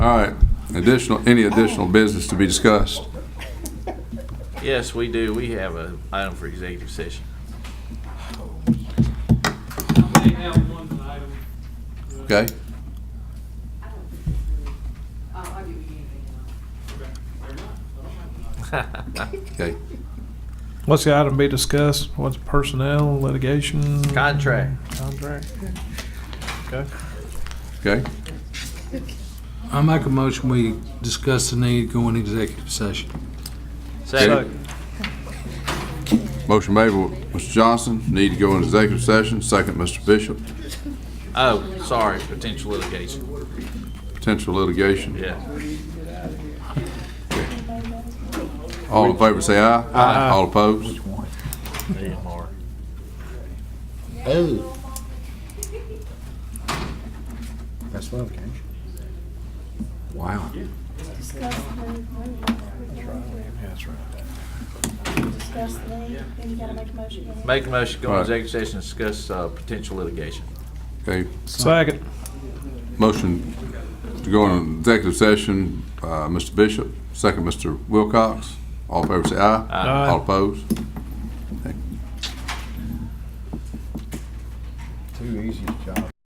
All right, additional, any additional business to be discussed? Yes, we do. We have an item for executive session. I may have one item. uh, Okay? I don't think we- I'll argue with you anything else. okay. Fair enough. I don't have an item. Okay. What's the item be discussed? What's personnel, litigation? Contract. Contract. Okay. Okay? I make a motion, we discuss the need to go in executive session. Okay. Second. Motion made by Mr. Johnson, need to go into executive session. Second, Mr. Bishop, Oh, sorry, potential litigation. potential litigation. Yeah. All in favor, say aye. Aye. All opposed? Oh. That's what I'm getting. Wow. Discuss the. That's right. Discuss the, then you gotta make a motion. Make a motion, to go Right. into executive session, discuss uh, potential litigation. Okay, Second. motion to go into executive session, uh, Mr. Bishop, second, Mr. Wilcox. All in favor, say aye. Aye. All opposed? Okay. Too easy, John.